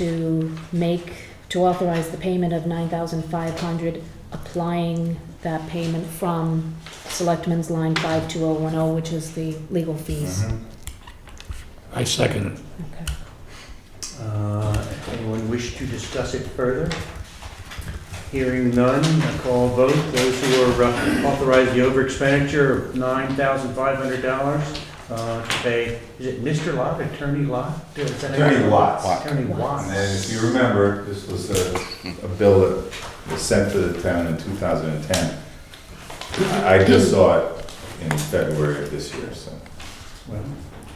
to make, to authorize the payment of nine thousand five hundred, applying that payment from Selectmen's Line five two oh one oh, which is the legal fees. Mm-hmm. Mm-hmm. I second it. Okay. Uh, Anyone wish to discuss it further? Hearing none, a call vote. Those who are uh, authorized the over expenditure of $9,500 uh, to pay, is it Mr. Lot, Attorney Lot? Is that how you- Attorney Watts. Attorney And Watts. then if you remember, this was a, a bill that was sent to the town in 2010. I I just saw it in February of this year, so Well,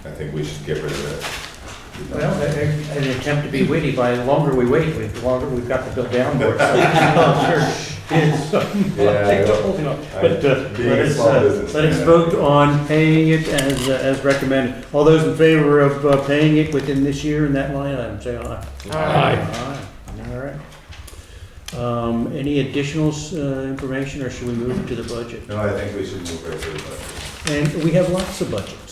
I think we should get rid of it. well, a- a- an attempt to be witty, by the longer we wait, we- the longer we've got the bill downward. So, I'm sure it is. Yeah, I know. But uh, Being let a us, small uh, business let us man. vote on paying it as, uh, as recommended. All those in favor of uh, paying it within this year in that line item, say aye. Aye. All right. Um, Any additional uh, information, or should we move to the budget? No, I think we should move right to the budget. And we have lots of budgets.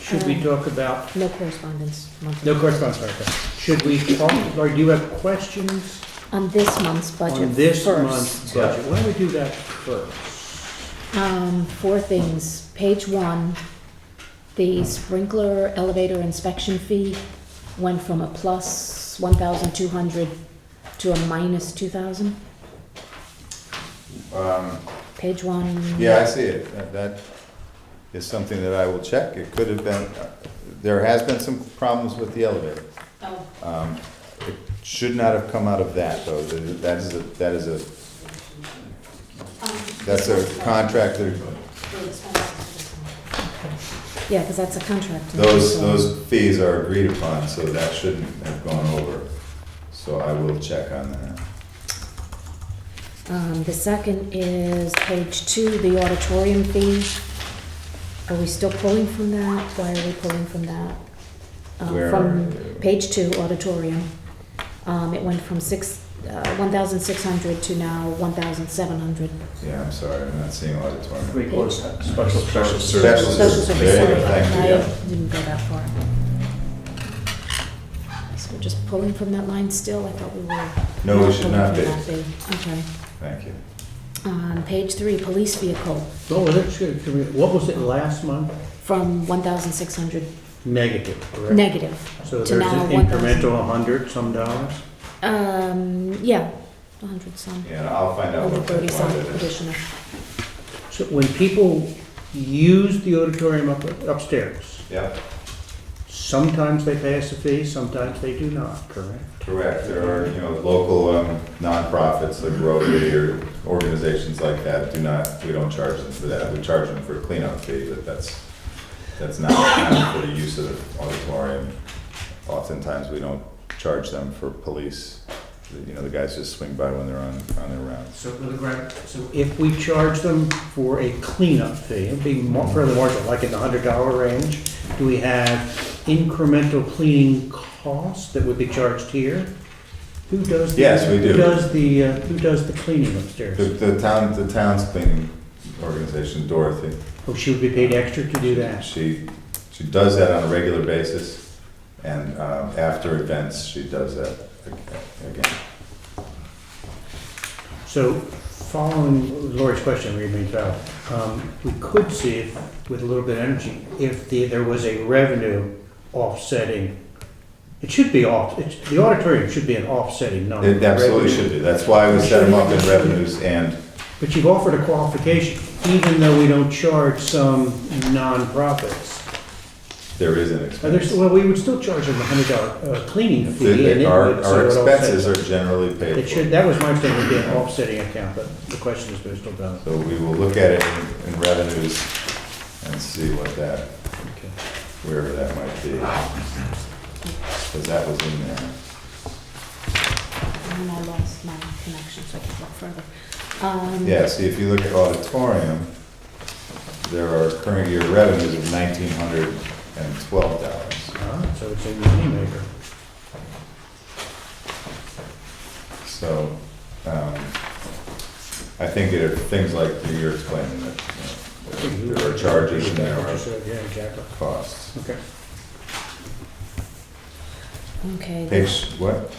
Should we Um. talk about, No correspondence monthly. no correspondence, sorry, sorry. should we talk, or do you have questions On this month's budget first. on this month's budget? Why don't we do that first? Um, four things. Page one, the sprinkler elevator inspection fee went from a plus one thousand two hundred to a minus two thousand. Um, Page one. Yeah, I see it. That- That is something that I will check. It could have been, uh, there has been some problems with the elevator. Oh, Um, It should not have come out of that, though. Th- That is a, that is a, that's a contractor. Yeah, because that's a contract. Those, so- those fees are agreed upon, so that shouldn't have gone over. So I will check on that. Um, the second is page two, the auditorium fee. Are we still pulling from that? Why are we pulling from that? Um, Where From are- page two, auditorium. Um, it went from six, uh, one thousand six hundred to now one thousand seven hundred. Yeah, I'm sorry, I'm not seeing auditorium. We call it special Special service. Special services. Social services, service, there sorry, you go, thank you, I yeah. didn't go that far. So we're just pulling from that line still? I thought we were. No, we should pulling not from be. that fee. Okay. Thank you. Um, page three, police vehicle, Oh, well, that's good. Can we- What was it last month? from one thousand six hundred Negative, correct? negative. So to there's now an 1,000. incremental 100 some dollars? Um, yeah, a hundred some, Yeah, I'll find out over what that thirty some one it is. additional. So when people use the auditorium up upstairs, Yep, sometimes they pay us a fee, sometimes they do not, correct? correct. There are, you know, local um, nonprofits like Rotary or organizations like that do not, we don't charge them for that. We charge them for a cleanup fee, but that's, that's not accounted for the use of the auditorium. Oftentimes, we don't charge them for police. You know, the guys just swing by when they're on, on their rounds. So, Little Grant, so if we charge them for a cleanup fee, it'd be more, further marginal, like in the $100 range, do we have incremental cleaning costs that would be charged here? Who does? the- Yes, we do. Who does the, uh, who does the cleaning upstairs? The, the town, the town's cleaning organization, Dorothy, Oh, she would be paid extra to do that? she, she does that on a regular basis, and um, after events, she does that ag- again. So, following Lori's question, remains valid. Um, We could see, if, with a little bit of energy, if the, there was a revenue offsetting. It should be off, it's, the auditorium should be an offsetting number. It absolutely revenue. should be, that's why we set them up in revenues and, But you've offered a qualification, even though we don't charge some nonprofits. there is an Are there- expense. well, we would still charge them a hundred dollar uh, cleaning fee. and it The- would- Our, so our it offsets. expenses are generally paid It for, should, that was my thing, would be an offsetting account, but the question is, we're still valid. so we will look at it in- in revenues and see what that, Okay. wherever that might be. Because that was in there. And then I lost my connection, so I can't look further. Um, Yeah, see, if you look at auditorium, there are current year revenues of nineteen hundred and twelve dollars. Ah, so it's a moneymaker. So, um, I think it, things like you're explaining that, you know, there are charges and there are Yeah, exactly. costs. Okay. Okay. Page, what?